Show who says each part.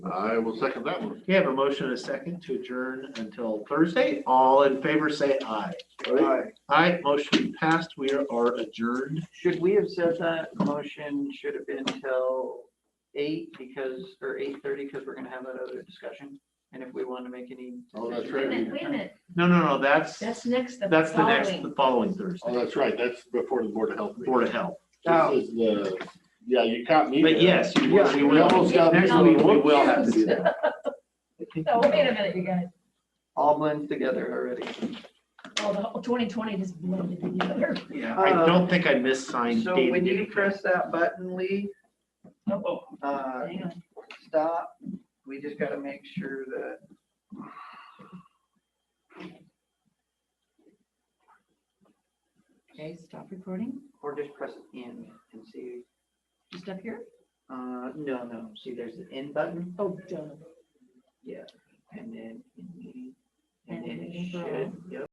Speaker 1: I will second that one.
Speaker 2: We have a motion and a second to adjourn until Thursday. All in favor, say aye. Aye, motion passed. We are adjourned.
Speaker 3: Should we have said that motion should have been till eight because, or eight thirty, because we're gonna have that other discussion? And if we want to make any.
Speaker 1: Oh, that's right.
Speaker 3: decisions
Speaker 4: Wait a
Speaker 3: at that
Speaker 4: minute, wait a
Speaker 3: time.
Speaker 4: minute,
Speaker 2: No, no, no, that's,
Speaker 4: that's next, the
Speaker 2: that's the next,
Speaker 4: following.
Speaker 2: the following
Speaker 1: Oh,
Speaker 2: Thursday,
Speaker 1: that's right, that's before the Board of Health. meeting.
Speaker 2: Board of Health.
Speaker 3: Oh.
Speaker 1: This is the, yeah, you caught me.
Speaker 2: But
Speaker 1: there.
Speaker 2: yes, you will- we
Speaker 1: We almost
Speaker 2: will,
Speaker 1: got.
Speaker 2: next week, we will have to do that.
Speaker 3: I think
Speaker 4: No, wait a minute, you guys,
Speaker 3: All blends together already.
Speaker 4: oh, the whole twenty twenty just blended together.
Speaker 2: Yeah, I don't think I missed sign
Speaker 3: Uh, So
Speaker 2: dated
Speaker 3: when you
Speaker 2: anything.
Speaker 3: press that button, Lee,
Speaker 4: Oh,
Speaker 3: uh,
Speaker 4: hang on.
Speaker 3: stop, we just gotta make sure that.
Speaker 4: Okay, stop recording,
Speaker 3: Or just press in and see,
Speaker 4: just up here,
Speaker 3: uh, no, no, see, there's the in button,
Speaker 4: oh, done.
Speaker 3: and then, in meeting, and
Speaker 4: And
Speaker 3: then it
Speaker 4: then
Speaker 3: should, yep.